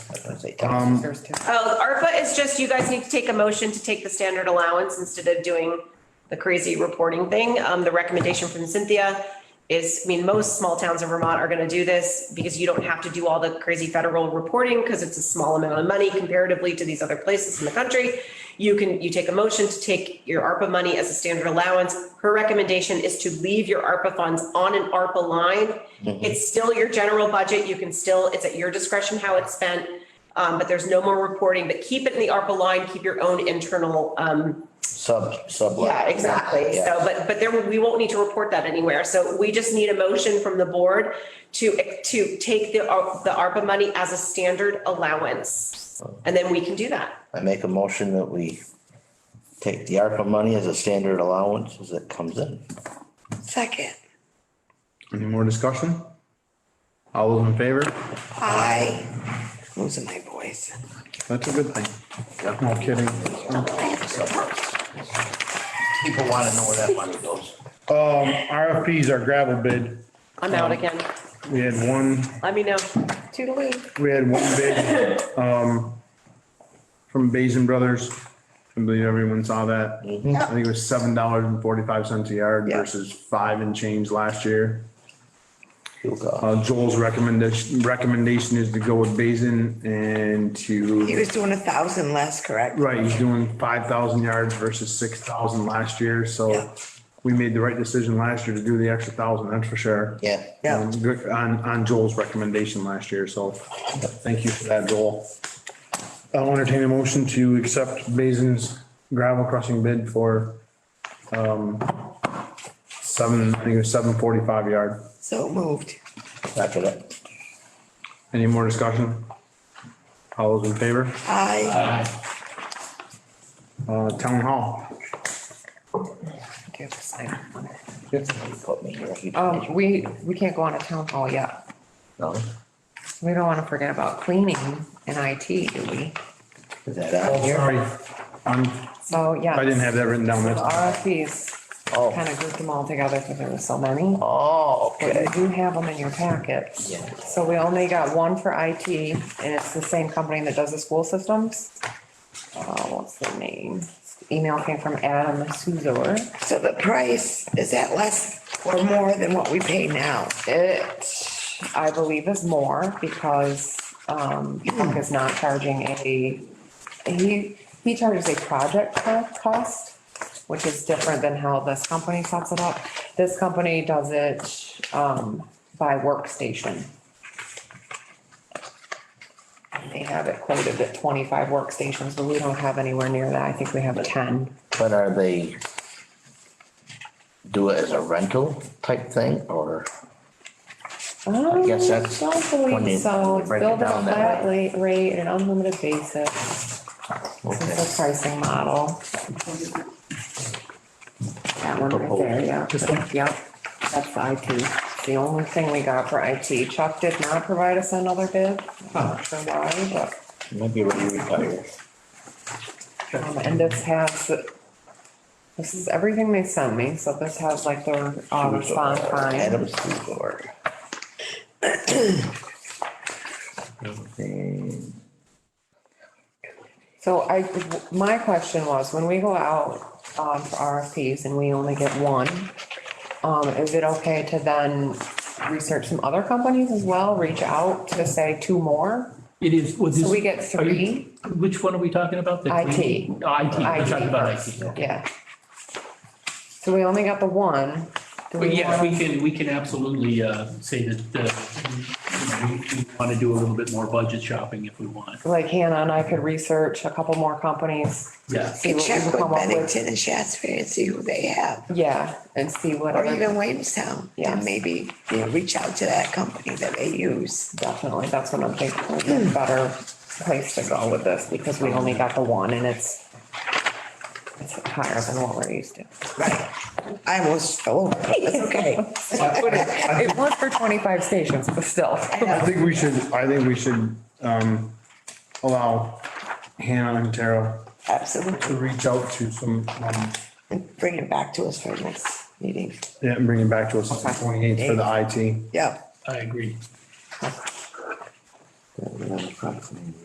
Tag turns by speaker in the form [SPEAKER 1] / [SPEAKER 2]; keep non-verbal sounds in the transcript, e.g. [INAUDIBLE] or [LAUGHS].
[SPEAKER 1] Um,
[SPEAKER 2] Oh, ARPA is just, you guys need to take a motion to take the standard allowance instead of doing the crazy reporting thing. Um, the recommendation from Cynthia is, I mean, most small towns in Vermont are gonna do this because you don't have to do all the crazy federal reporting because it's a small amount of money comparatively to these other places in the country. You can, you take a motion to take your ARPA money as a standard allowance. Her recommendation is to leave your ARPA funds on an ARPA line. It's still your general budget. You can still, it's at your discretion how it's spent. Um, but there's no more reporting, but keep it in the ARPA line, keep your own internal, um,
[SPEAKER 1] Sub, sub.
[SPEAKER 2] yeah, exactly. So, but, but there, we won't need to report that anywhere. So we just need a motion from the board to, to take the, Ar- the ARPA money as a standard allowance. And then we can do that.
[SPEAKER 1] I make a motion that we take the ARPA money as a standard allowance as it comes in.
[SPEAKER 3] Second,
[SPEAKER 4] Any more discussion? All those in favor?
[SPEAKER 5] Ah.
[SPEAKER 3] I, losing my voice.
[SPEAKER 4] That's a good thing. No kidding.
[SPEAKER 1] People want to know where that money goes.
[SPEAKER 4] Um, RFPs are gravel bid.
[SPEAKER 2] I'm out again.
[SPEAKER 4] We had one,
[SPEAKER 2] Let me know.
[SPEAKER 3] Toodaloo.
[SPEAKER 4] we had one bid, um, from Basin Brothers. I believe everyone saw that. I think it was seven dollars and forty-five cents a yard
[SPEAKER 3] Yeah.
[SPEAKER 4] versus five and change last year.
[SPEAKER 1] You go.
[SPEAKER 4] Uh, Joel's recommendation, recommendation is to go with Basin and to.
[SPEAKER 3] He was doing a thousand less, correct?
[SPEAKER 4] Right, he's doing five thousand yards versus six thousand last year,
[SPEAKER 3] Yeah.
[SPEAKER 4] so we made the right decision last year to do the extra thousand, that's for sure.
[SPEAKER 1] Yeah.
[SPEAKER 3] Yeah.
[SPEAKER 4] Um, good- On, on Joel's recommendation last year, so thank you for that, Joel. I'll entertain a motion to accept Basin's gravel crushing bid for, um, seven, I think it was seven forty-five yard.
[SPEAKER 3] So moved.
[SPEAKER 1] Second it.
[SPEAKER 4] Any more discussion? All those in favor?
[SPEAKER 3] I,
[SPEAKER 4] Uh, town hall.
[SPEAKER 1] You put me here. You-
[SPEAKER 2] Oh.
[SPEAKER 5] Um, we, we can't go on a town hall yet.
[SPEAKER 1] No?
[SPEAKER 5] We don't wanna forget about cleaning and IT, do we?
[SPEAKER 1] Is that out here?
[SPEAKER 4] Sorry, I'm,
[SPEAKER 5] So, yeah.
[SPEAKER 4] I didn't have that written down,
[SPEAKER 5] The
[SPEAKER 4] that's.
[SPEAKER 1] Oh.
[SPEAKER 5] RFPs, kinda grouped them all together because there were so many.
[SPEAKER 1] Oh,
[SPEAKER 5] But
[SPEAKER 1] okay.
[SPEAKER 5] you do have them in your packets.
[SPEAKER 1] Yeah.
[SPEAKER 5] So we only got one for IT and it's the same company that does the school systems. Uh, what's the name? Email came from Adam Suzor.
[SPEAKER 3] so the price, is that less or more than what we pay now?
[SPEAKER 5] It, I believe, is more because um, Mark is not charging a, he, he charges a project co- cost, which is different than how this company sets it up. This company does it um, by workstation. They have it quoted at twenty-five workstations, but we don't have anywhere near that. I think we have ten.
[SPEAKER 1] But are they do it as a rental type thing or?
[SPEAKER 5] I
[SPEAKER 1] guess that's
[SPEAKER 5] Um, Don't
[SPEAKER 1] when they-
[SPEAKER 5] believe so.
[SPEAKER 1] they break it
[SPEAKER 5] Build it a
[SPEAKER 1] down that
[SPEAKER 5] flat rate, rate, an unlimited basis.
[SPEAKER 1] Okay.
[SPEAKER 5] It's a pricing model. That one right there, yeah. Yep, that's IT. It's The only thing we got for IT. Chuck did not provide us another bid. I'm not sure why, but,
[SPEAKER 1] Maybe when you retire.
[SPEAKER 5] um, and this has, this is everything they sent me, so this has like their uh,
[SPEAKER 2] Um,
[SPEAKER 5] response time.
[SPEAKER 1] Adam's food board.
[SPEAKER 5] So I, my question was, when we go out um, for RFPs and we only get one, um, is it okay to then research some other companies as well, reach out to say two more?
[SPEAKER 6] It is, well, this.
[SPEAKER 5] So we get
[SPEAKER 6] are you-
[SPEAKER 5] three?
[SPEAKER 6] Which one are we talking about? The
[SPEAKER 5] IT.
[SPEAKER 6] cleaning? Oh, IT, we're talking about IT.
[SPEAKER 5] Yeah. So we only got the one. Do
[SPEAKER 6] But
[SPEAKER 5] we
[SPEAKER 6] yes,
[SPEAKER 5] wanna-
[SPEAKER 6] we can, we can absolutely uh, say that uh, we- we want to do a little bit more budget shopping if we want.
[SPEAKER 5] Like Hannah and I could research a couple more companies.
[SPEAKER 6] Yeah.
[SPEAKER 5] see
[SPEAKER 3] And
[SPEAKER 5] what we
[SPEAKER 3] check
[SPEAKER 5] can
[SPEAKER 3] with
[SPEAKER 5] come up
[SPEAKER 3] Bennington and Shasberry and see who they have,
[SPEAKER 5] Yeah, and see what.
[SPEAKER 3] or
[SPEAKER 5] other-
[SPEAKER 3] even Williamstown.
[SPEAKER 5] Yeah.
[SPEAKER 3] And maybe, you know, reach out to that company that they use.
[SPEAKER 5] Definitely, that's what I'm thinking, would be a better place to go with this, because we only got the one and it's it's higher than what we're used to.
[SPEAKER 3] I almost, oh, it's okay.
[SPEAKER 5] [LAUGHS] It was for twenty-five stations, but still.
[SPEAKER 4] I think we should, I think we should, um, allow Hannah and Tara to
[SPEAKER 3] Absolutely.
[SPEAKER 4] reach out to some, um,
[SPEAKER 3] Bring it back to us for next meeting.
[SPEAKER 4] yeah, and bring it back to us on the twenty-eighth for the IT.
[SPEAKER 3] Yeah.
[SPEAKER 6] I agree.
[SPEAKER 1] Another problem.